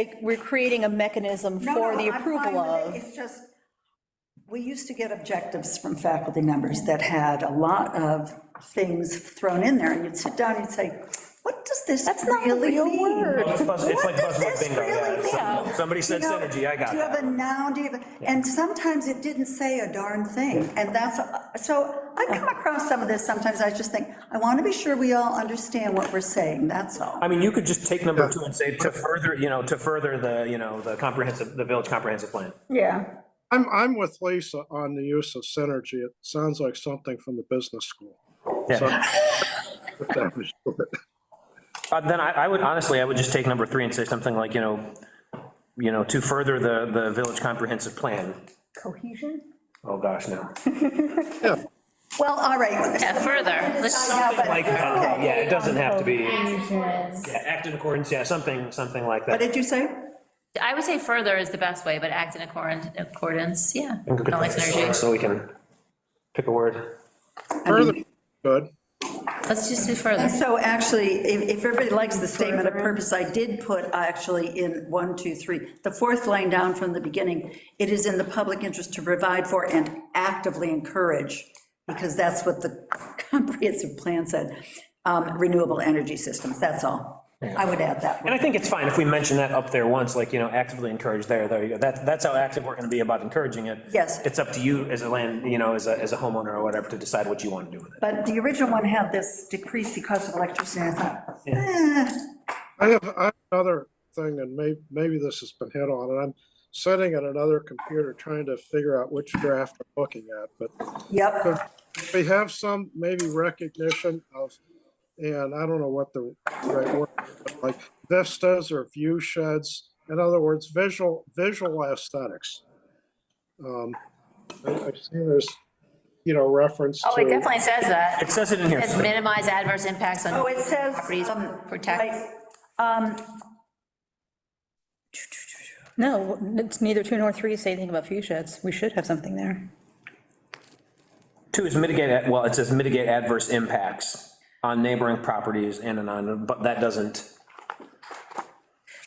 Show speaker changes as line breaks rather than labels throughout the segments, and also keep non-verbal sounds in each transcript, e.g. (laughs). like, we're creating a mechanism
No,
for
no,
the
I'm fine
approval
with it.
of.
It's just, we used to get objectives from faculty members that had a lot of things thrown in there, and you'd sit down, and you'd say, what does this
That's not a
really
real
mean?
word.
It's buzz- it's
What
like
does
buzzword
this
bingo,
really
yeah.
mean?
Some- Somebody said
You know,
synergy, I got
Do you have a
that.
noun, do you have, a- and sometimes it didn't say a darn thing, and that's, so I come across some of this, sometimes I just think, I want to be sure we all understand what we're saying, that's all.
I mean, you could just take number two and say, to further, you know, to further the, you know, the comprehensive, the village comprehensive plan.
Yeah.
I'm, I'm with Lisa on the use of synergy. It sounds like something from the business school. So- if that was short.
Uh, Then I, I would, honestly, I would just take number three and say something like, you know, you know, to further the, the village comprehensive plan.
Cohesion?
Oh, gosh, no.
Yeah,
Well, all right.
Yeah, further, let's just-
Yeah, but-
Like, okay, yeah, it doesn't have to be, yeah,
Actions.
act in accordance, yeah, something, something like
What
that.
did you say?
I would say further is the best way, but act in accord- accordance, yeah.
We could
Not like
put this
synergy.
on So we can pick a word.
further, good.
Let's just do further.
So actually, if, if everybody likes the statement of purpose, I did put actually in one, two, three, the fourth line down from the beginning, it is in the public interest to provide for and actively encourage, because that's what the (laughs) comprehensive plan said, um, renewable energy systems, that's all. I would add that.
And I think it's fine if we mention that up there once, like, you know, actively encourage there, there you go. That, that's how active we're gonna be about encouraging it.
Yes.
It's up to you as a land, you know, as a, as a homeowner or whatever to decide what you want to do with it.
But the original one had this decrease the cost of electricity, and I thought, eh,
I have, I have another thing, and may, maybe this has been hit on, and I'm sitting at another computer trying to figure out which draft I'm looking at, but
yep,
we have some maybe recognition of, and I don't know what the right word, but like vistas or view sheds, in other words, visual, visual aesthetics. Um, I, I've seen there's, you know, reference
Oh, it
to,
definitely says that.
It says it in here.
It's minimize adverse impacts on.
Oh, it says,
Properties,
um,
protect.
like, um,
No, it's neither two nor three say anything about fuchsia. It's, we should have something there.
Two is mitigate, ad- well, it says mitigate adverse impacts on neighboring properties and on, but that doesn't,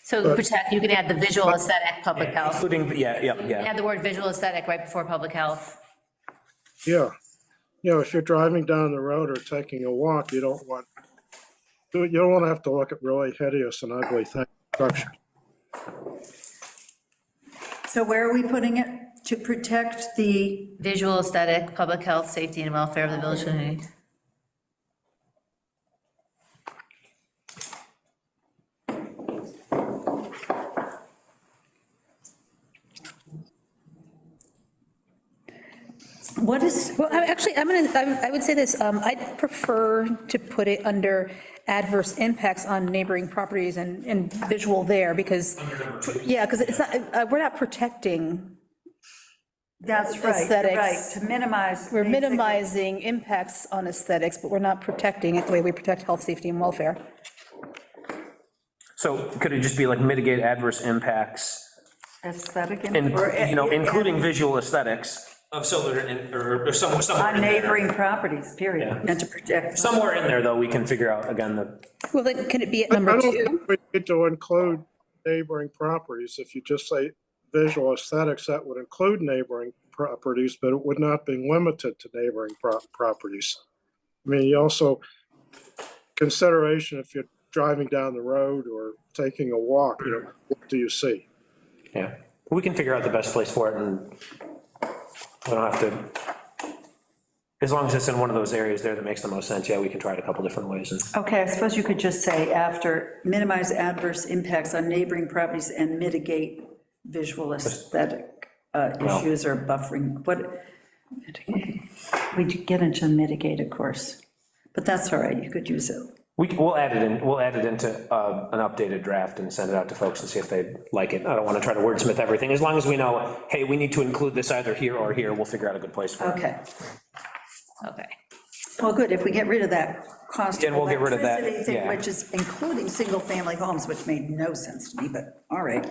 So protect, you can add the visual aesthetic, public health.
including, yeah, yeah, yeah.
Add the word visual aesthetic right before public health.
yeah. You know, if you're driving down the road or taking a walk, you don't want, you don't want to have to look at really hideous and ugly things.
so where are we putting it? To protect the
Visual aesthetic, public health, safety and welfare of the village community.
What is,
Well, I- actually, I'm gonna, I I would say this, um, I'd prefer to put it under adverse impacts on neighboring properties and, and visual there, because, yeah, because it's not, uh, we're not protecting,
that's right, you're right,
Aesthetics.
to minimize.
we're minimizing impacts on aesthetics, but we're not protecting it the way we protect health, safety, and welfare.
So could it just be like mitigate adverse impacts
Aesthetic. in-
and,
or- uh,
you know, including visual aesthetics of solar and, or or somewhere, somewhere
On
in there.
neighboring properties, period,
Yeah.
and to protect.
Somewhere in there, though, we can figure out, again, the,
Well, then, can it be at
I
number
don't
two?
think We need to include neighboring properties. If you just say visual aesthetics, that would include neighboring properties, but it would not be limited to neighboring pro- properties. I mean, you also, consideration if you're driving down the road or taking a walk, you know, what do you see?
Yeah, we can figure out the best place for it and we don't have to, as long as it's in one of those areas there that makes the most sense, yeah, we can try it a couple different ways. and-
Okay, I suppose you could just say after, minimize adverse impacts on neighboring properties and mitigate visual aesthetic uh, issues or buffering, what, we get into mitigate, of course, but that's all right, you could use it.
We, c- we'll add it in, we'll add it into uh, an updated draft and send it out to folks and see if they like it. I don't want to try to wordsmith everything, as long as we know, hey, we need to include this either here or here, we'll figure out a good place for it.
Okay,
Okay.
well, good, if we get rid of that cost of
Then we'll get rid of that,
electricity thing,
yeah.
which is including single-family homes, which made no sense to me, but all right.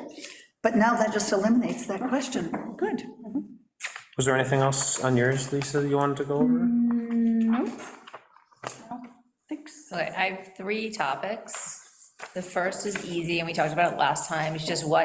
But now that just eliminates that question, good.
Was there anything else on yours, Lisa, that you wanted to go over?
Thanks.
Okay, I have three topics. The first is easy, and we talked about it last time, it's just what